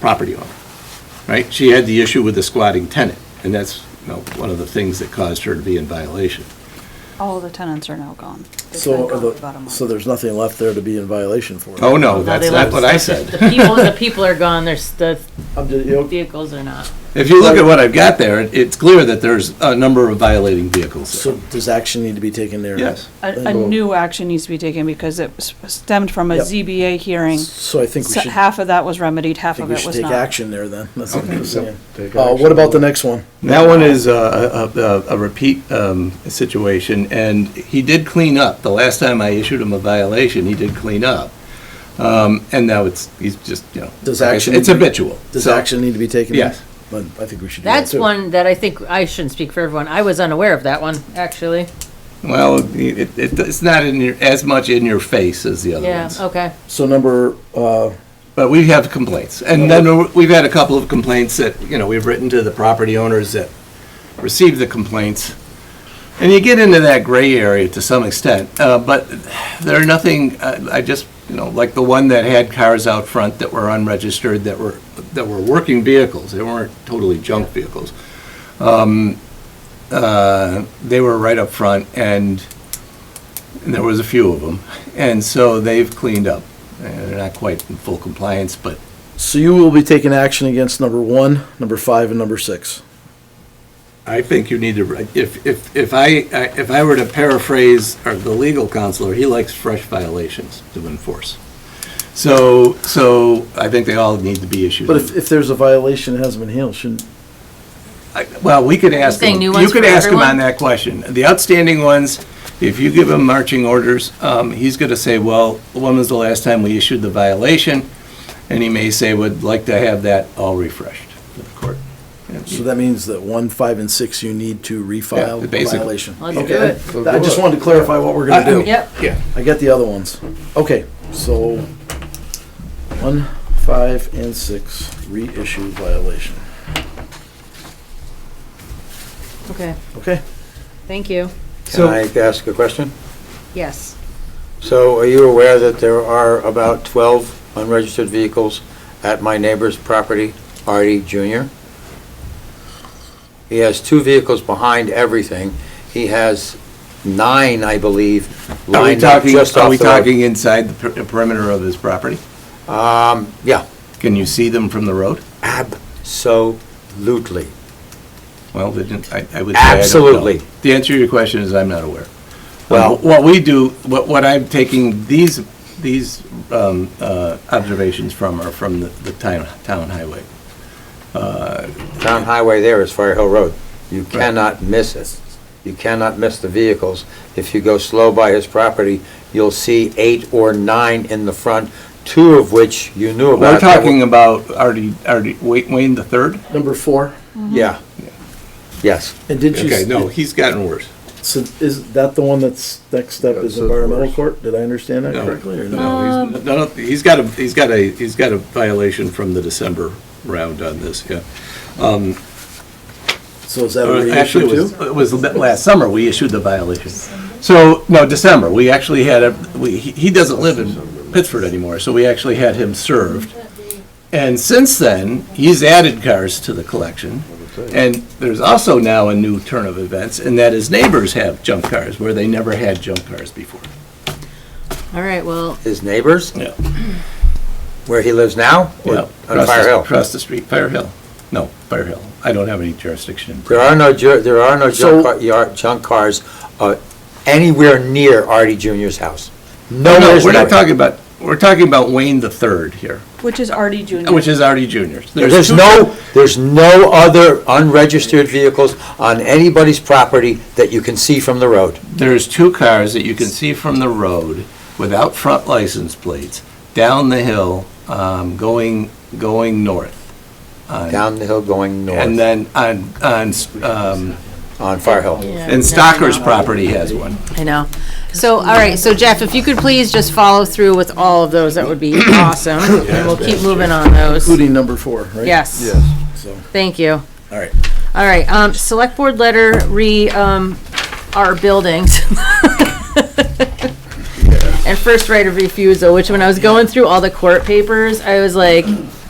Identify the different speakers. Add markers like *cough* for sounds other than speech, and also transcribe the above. Speaker 1: property owner, right? She had the issue with the squatting tenant, and that's, you know, one of the things that caused her to be in violation.
Speaker 2: All the tenants are now gone. They've
Speaker 3: So,
Speaker 2: been gone
Speaker 3: are the-
Speaker 2: for about a month.
Speaker 3: so there's nothing left there to be in violation for?
Speaker 1: Oh, no,
Speaker 4: No,
Speaker 1: that's
Speaker 4: they
Speaker 1: not
Speaker 4: left.
Speaker 1: what I said.
Speaker 4: The people, the people are gone, there's, the
Speaker 3: I'm just, Um, you know,
Speaker 4: vehicles are not.
Speaker 1: *laughs* If you look at what I've got there, it- it's clear that there's a number of violating vehicles there.
Speaker 3: so does action need to be taken there?
Speaker 1: Yes.
Speaker 2: A, a new action needs to be taken because it s- stemmed from a
Speaker 3: Yep.
Speaker 2: ZBA hearing.
Speaker 3: So I think we
Speaker 2: So
Speaker 3: should,
Speaker 2: Half of that was remedied, half
Speaker 3: think
Speaker 2: of
Speaker 3: we
Speaker 2: it
Speaker 3: should
Speaker 2: was
Speaker 3: take
Speaker 2: not.
Speaker 3: action there then. That's what I'm saying.
Speaker 5: take
Speaker 3: Uh,
Speaker 5: action.
Speaker 3: what about the next one?
Speaker 1: That one is uh, a, a, a repeat um, situation, and he did clean up. The last time I issued him a violation, he did clean up. Um, and now it's, he's just, you know.
Speaker 3: Does
Speaker 1: like I
Speaker 3: action-
Speaker 1: said, It's habitual.
Speaker 3: Does
Speaker 1: So-
Speaker 3: action need to be taken? there?
Speaker 1: Yes.
Speaker 3: But I think we should do that
Speaker 4: That's
Speaker 3: too.
Speaker 4: one that I think, I shouldn't speak for everyone, I was unaware of that one, actually.
Speaker 1: Well, it, it, it's not in your, as much in your face as the other
Speaker 4: Yeah,
Speaker 1: ones.
Speaker 4: okay.
Speaker 3: So number, uh,
Speaker 1: But we have complaints, and then we've had a couple of complaints that, you know, we've written to the property owners that received the complaints. And you get into that gray area to some extent, uh, but there are nothing, uh, I just, you know, like the one that had cars out front that were unregistered, that were, that were working vehicles, they weren't totally junk vehicles. Um, uh, They were right up front, and and there was a few of them, and so they've cleaned up. And They're not quite in full compliance, but
Speaker 3: so you will be taking action against number one, number five, and number six.
Speaker 1: I think you need to, if, if, if I, if I were to paraphrase our- the legal counselor, he likes fresh violations to enforce. So, so I think they all need to be issued.
Speaker 3: But if, if there's a violation that hasn't been handled, shouldn't,
Speaker 1: I- Well, we could ask
Speaker 4: saying
Speaker 1: them,
Speaker 4: new
Speaker 1: you
Speaker 4: ones
Speaker 1: could
Speaker 4: for
Speaker 1: ask him on
Speaker 4: everyone?
Speaker 1: that question. The outstanding ones, if you give him marching orders, um, he's gonna say, well, when was the last time we issued the violation? And he may say, would like to have that all refreshed for the court.
Speaker 3: so that means that one, five, and six, you need to refile the
Speaker 1: basically.
Speaker 3: violation.
Speaker 4: Let's
Speaker 3: Okay,
Speaker 4: do it.
Speaker 5: So do
Speaker 3: I just
Speaker 5: it.
Speaker 3: wanted to clarify what we're gonna
Speaker 1: I- I
Speaker 3: do.
Speaker 1: mean,
Speaker 4: Yep.
Speaker 1: Yeah.
Speaker 3: I get the other ones. Okay, so one, five, and six reissue violation.
Speaker 4: Okay,
Speaker 3: Okay,
Speaker 4: thank you.
Speaker 5: Can I ask a question?
Speaker 4: Yes,
Speaker 5: So are you aware that there are about 12 unregistered vehicles at my neighbor's property, Artie Jr.? He has two vehicles behind everything. He has nine, I believe,
Speaker 1: Are we
Speaker 5: lined up
Speaker 1: talking,
Speaker 5: just
Speaker 1: are we
Speaker 5: off the road.
Speaker 1: talking inside the per- perimeter of his property?
Speaker 5: Um, yeah,
Speaker 1: Can you see them from the road?
Speaker 5: absolutely.
Speaker 1: Well, they didn't, I, I would say I don't know.
Speaker 5: Absolutely.
Speaker 1: The answer to your question is I'm not aware. Well,
Speaker 5: Well-
Speaker 1: what we do, what, what I'm taking these, these, um, uh, observations from are from the, the town, town highway. Uh,
Speaker 5: Town highway there is Fire Hill Road. You cannot miss it. You cannot miss the vehicles. If you go slow by his property, you'll see eight or nine in the front, two of which you knew about.
Speaker 1: We're talking about already, already, Wayne, Wayne the third?
Speaker 3: number four,
Speaker 5: Yeah. Yes.
Speaker 3: and did you?
Speaker 1: Okay, no, he's gotten worse.
Speaker 3: So is that the one that's, next step
Speaker 5: That's
Speaker 3: is
Speaker 5: the
Speaker 3: environmental
Speaker 5: worst.
Speaker 3: court? Did I understand that
Speaker 1: No.
Speaker 3: correctly or no?
Speaker 1: No, he's, no, no, he's got a, he's got a, he's got a violation from the December round on this, yeah. Um,
Speaker 3: So is that a
Speaker 1: Or Uh, Actually,
Speaker 3: reissue
Speaker 1: it was,
Speaker 3: too?
Speaker 1: it was la- last summer, we issued the violation. So, no, December, we actually had a, we, he he doesn't live in Pittsford anymore, so we actually had him served. And since then, he's added cars to the collection. And there's also now a new turn of events, and that is neighbors have junk cars, where they never had junk cars before.
Speaker 4: all right, well,
Speaker 5: His neighbors,
Speaker 1: Yeah.
Speaker 5: where he lives now? or
Speaker 1: Yeah,
Speaker 5: On
Speaker 1: across
Speaker 5: Fire
Speaker 1: the-
Speaker 5: Hill?
Speaker 1: Across the street, Fire Hill. No, Fire Hill. I don't have any jurisdiction.
Speaker 5: There are no, ju- there are no
Speaker 3: So-
Speaker 5: junk car- yard- junk cars uh, anywhere near Artie Jr.'s house.
Speaker 1: No, no,
Speaker 5: Nowhere's
Speaker 1: we're
Speaker 5: near
Speaker 1: not
Speaker 5: it.
Speaker 1: talking about, we're talking about Wayne the Third here.
Speaker 2: Which is Artie Junior.
Speaker 1: Which is already juniors.
Speaker 5: There's
Speaker 1: two-
Speaker 5: no, there's no other unregistered vehicles on anybody's property that you can see from the road.
Speaker 1: There's two cars that you can see from the road without front license plates, down the hill, um, going, going north. on-
Speaker 5: Down the hill going
Speaker 1: And
Speaker 5: north
Speaker 1: then on, on, um,
Speaker 5: on Fire Hill.
Speaker 4: yeah.
Speaker 1: and uh,
Speaker 4: no,
Speaker 1: Stocker's
Speaker 4: no.
Speaker 1: property has one.
Speaker 4: I know. So, all right, so Jeff, if you could please just follow through with all of those, that would
Speaker 1: *coughs*
Speaker 4: be awesome, and we'll keep moving on those.
Speaker 3: Including number four, right?
Speaker 4: Yes,
Speaker 3: So,
Speaker 4: thank you.
Speaker 3: all right.
Speaker 4: All right, um, select board letter re, um,
Speaker 3: *laughs*
Speaker 4: our buildings. And first right of refusal, which when I was going through all the court papers, I was like,